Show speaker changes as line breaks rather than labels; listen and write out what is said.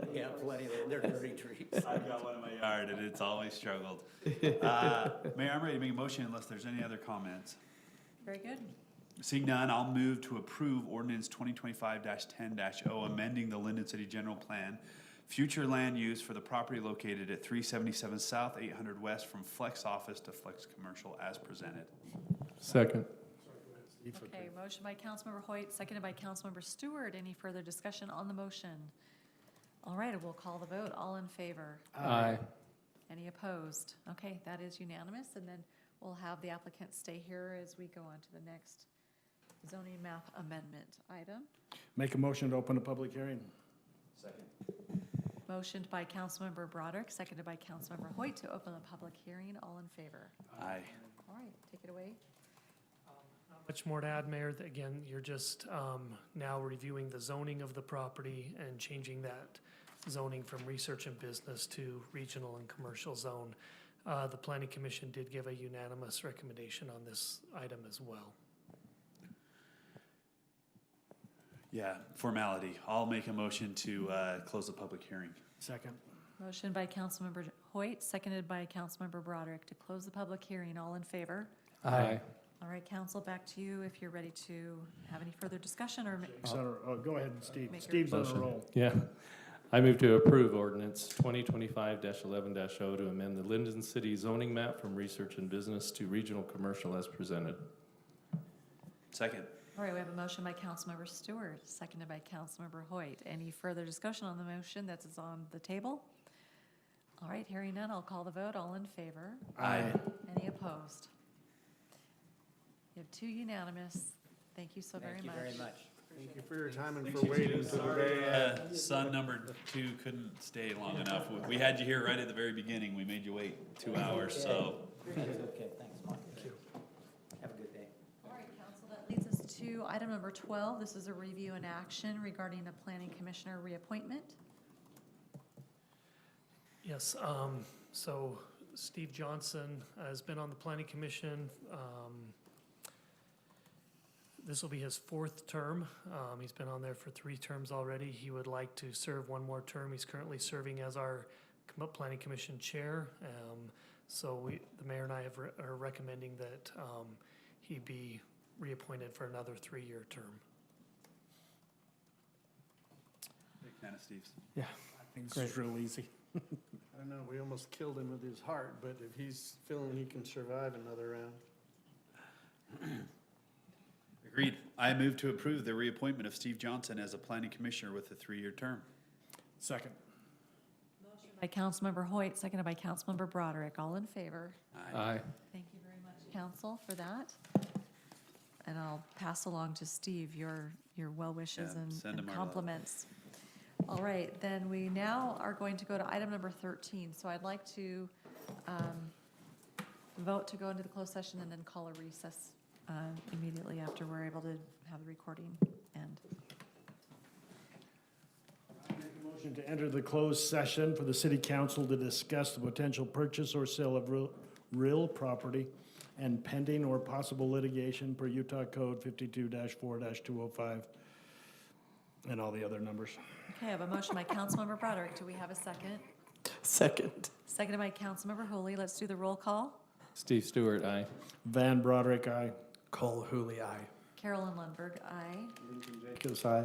got plenty, of- they're dirty treats.
I've got one in my yard and it's always struggled. Uh, Mayor, I'm ready to make a motion unless there's any other comments.
Very good.
Seeing none, I'll move to approve ordinance twenty twenty-five ten 0 amending the Linden City General Plan, future land use for the property located at three seventy-seven South, eight hundred West, from flex office to flex commercial as presented.
Second.
Okay, motion by Councilmember Hoyt, seconded by Councilmember Stewart. Any further discussion on the motion? All right, we'll call the vote. All in favor?
Aye.
Any opposed? Okay, that is unanimous, and then we'll have the applicant stay here as we go on to the next zoning map amendment item.
Make a motion to open a public hearing.
Motioned by Councilmember Broderick, seconded by Councilmember Hoyt to open the public hearing. All in favor?
Aye.
All right, take it away.
Not Much more to add, Mayor. Th- Again, you're just um, now reviewing the zoning of the property and changing that zoning from research and business to regional and commercial zone. Uh, The planning commission did give a unanimous recommendation on this item as well.
Yeah, formality. I'll make a motion to, uh, close the public hearing.
Second.
Motion by Councilmember Hoyt, seconded by Councilmember Broderick to close the public hearing. All in favor?
Aye.
All right, council, back to you if you're ready to have any further discussion or. ma-
Oh, go ahead, Steve.
Make your-
Steve's on a
Motion.
roll.
Yeah. I move to approve ordinance twenty twenty-five eleven 0 to amend the Linden City zoning map from research and business to regional commercial as presented.
Second.
All right, we have a motion by Councilmember Stewart, seconded by Councilmember Hoyt. Any further discussion on the motion that is on the table? All right, hearing none, I'll call the vote. All in favor?
Aye.
Any opposed? You have two unanimous. Thank you so very
Thank you
much.
very much.
Thank you for your time and for waiting to the day.
Uh, son number two couldn't stay long enough. We- We had you here right at the very beginning. We made you wait two hours, so.
Okay, thanks, Mark. Thank you. Have a good day.
All right, council, that leads us to item number 12. This is a review and action regarding a planning commissioner reappointment.
Yes, um, so Steve Johnson has been on the planning commission. Um, this will be his fourth term. Um, he's been on there for three terms already. He would like to serve one more term. He's currently serving as our com- planning commission chair. Um, so we, the mayor and I have, re- are recommending that, um, he be reappointed for another three-year term.
Big fan of Steve's.
Yeah. I think it's real easy.
I don't know, we almost killed him with his heart, but if he's feeling he can survive another round.
Agreed. I move to approve the reappointment of Steve Johnson as a planning commissioner with a three-year term.
Second.
By Councilmember Hoyt, seconded by Councilmember Broderick. All in favor?
Aye.
Thank you very much, council, for that. And I'll pass along to Steve your, your well wishes
Yeah,
and
send him
and
our love.
compliments. All right, then we now are going to go to item number 13. So I'd like to um, vote to go into the closed session and then call a recess uh, immediately after we're able to have the recording end.
Motion to enter the closed session for the city council to discuss the potential purchase or sale of real, real property and pending or possible litigation per Utah Code fifty-two four two oh five and all the other numbers.
Okay, I have a motion by Councilmember Broderick. Do we have a second?
Second.
Seconded by Councilmember Hooley. Let's do the roll call.
Steve Stewart, aye.
Van Broderick, aye.
Cole Hooley, aye.
Carolyn Lundberg, aye.
Jacobs, aye.